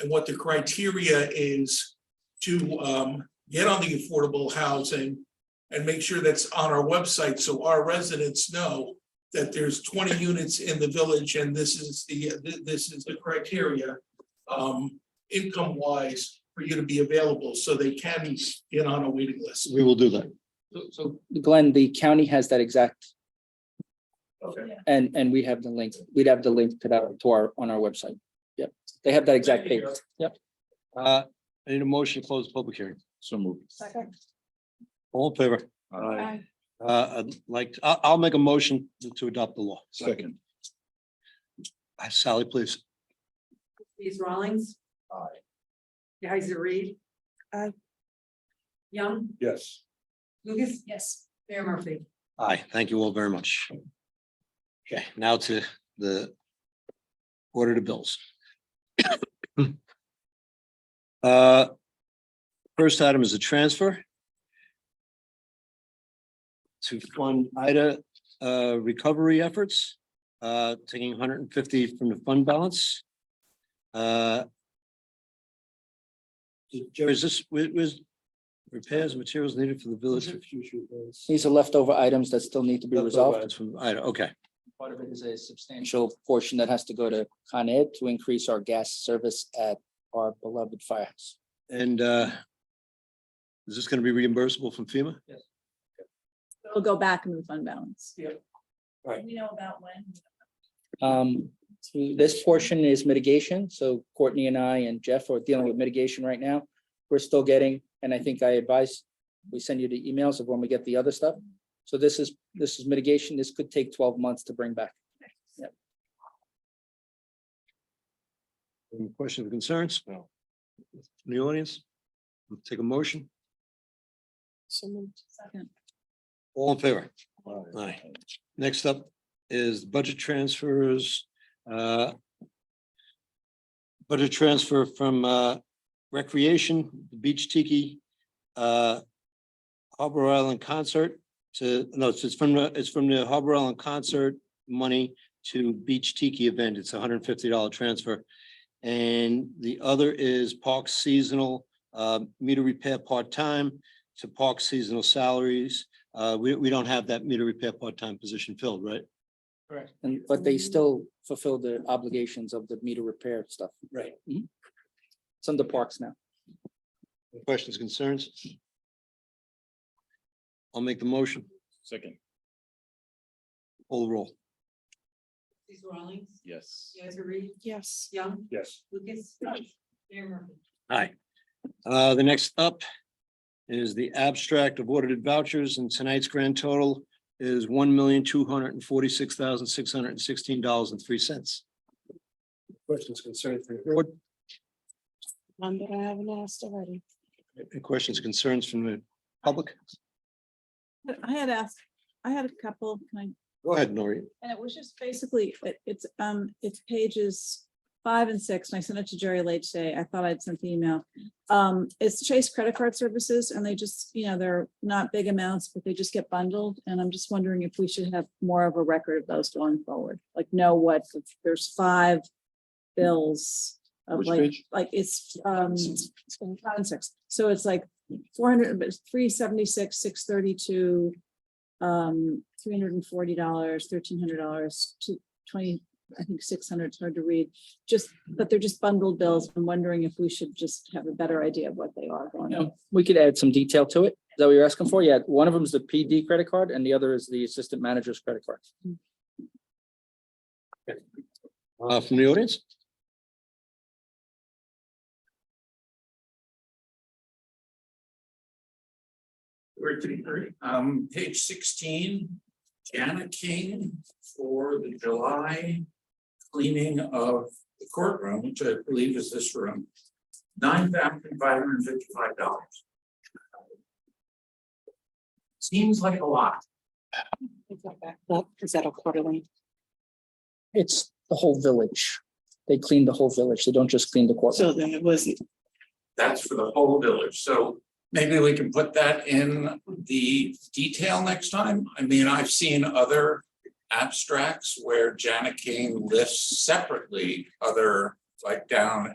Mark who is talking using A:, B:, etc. A: and what the criteria is to um, get on the affordable housing and make sure that's on our website, so our residents know that there's twenty units in the village and this is the, th- this is the criteria um, income wise for you to be available, so they can get on a waiting list.
B: We will do that.
C: So- So Glenn, the county has that exact,
A: Okay.
C: and, and we have the link, we'd have the link to that, to our, on our website. Yep, they have that exact page.
B: Uh, I need a motion to close the public hearing.
D: So moved.
E: Second.
B: All in favor?
D: Aye.
B: Uh, I'd like, I, I'll make a motion to- to adopt the law.
D: Second.
B: Uh, Sally, please.
E: Trustees Rawlings. Aye. Kaiser Reed. Aye. Young,
D: Yes.
E: Lucas. Yes. Mayor Murphy.
B: Aye, thank you all very much. Okay, now to the order to bills. Uh, First item is a transfer to fund Ida uh, recovery efforts, uh, taking hundred and fifty from the fund balance. Uh, Jerry, is this, was- was repairs, materials needed for the village?
C: These are leftover items that still need to be resolved.
B: That's from Ida, okay,
C: Part of it is a substantial portion that has to go to Con Ed to increase our gas service at our beloved firehouse.
B: and uh. Is this gonna be reimbursable from FEMA?
F: It'll go back in the fund balance.
B: Right.
F: We know about when.
C: Um, this portion is mitigation, so Courtney and I and Jeff are dealing with mitigation right now. We're still getting, and I think I advise, we send you the emails of when we get the other stuff. So this is, this is mitigation. This could take twelve months to bring back.
B: Any questions or concerns? No. From the audience? We'll Take a motion,
F: Second.
B: all in favor? Aye. Next up is budget transfers, uh. Budget transfer from uh recreation, beach tiki, uh. Harbor Island concert to, no, it's it's from the, it's from the Harbor Island concert money to beach tiki event. It's a hundred and fifty dollar transfer. And the other is park seasonal, uh, meter repair part-time to park seasonal salaries. Uh, we, we don't have that meter repair part-time position filled, right?
C: Correct. And, but they still fulfill the obligations of the meter repair stuff.
B: Right.
C: Mhm. It's under parks now.
B: Questions, concerns? I'll make the motion,
D: Second.
B: All roll.
E: Trustees Rawlings.
D: Yes.
E: Kaiser Reed. Yes. Young,
D: Yes.
E: Lucas. Mayor Murphy.
B: Aye. Uh, the next up is the abstract of audited vouchers and tonight's grand total is one million, two hundred and forty-six thousand, six hundred and sixteen dollars and three cents.
G: Questions concerning the
B: What,
H: One that I haven't asked already.
B: any questions, concerns from the public?
F: But I had asked, I had a couple, can I
B: Go ahead, Nori.
F: And it was just basically, it, it's, um, it's pages five and six, and I sent it to Jerry late today. I thought I'd sent the email. Um, it's Chase Credit Card Services, and they just, you know, they're not big amounts, but they just get bundled, and I'm just wondering if we should have more of a record of those going forward, like know what, there's five bills of
D: Which
F: like,
D: page?
F: like it's, um, it's been five and six, so it's like four hundred, but three seventy-six, six thirty-two, um, three hundred and forty dollars, thirteen hundred dollars, two, twenty, I think six hundred, it's hard to read. Just, but they're just bundled bills. I'm wondering if we should just have a better idea of what they are going on.
C: Yeah, we could add some detail to it. Is that what you're asking for? Yeah, one of them is the PD credit card and the other is the assistant manager's credit card.
B: Uh, from the audience?
A: Um, page sixteen, Janet King for the July cleaning of the courtroom, which I believe is this room. Nine thousand five hundred and fifty-five dollars. Seems like a lot.
H: Well, is that a quarterly?
C: It's the whole village. They clean the whole village. They don't just clean the
H: So
C: courtroom.
H: then it wasn't,
A: That's for the whole village, so maybe we can put that in the detail next time. I mean, I've seen other abstracts where Janet King lists separately other, like down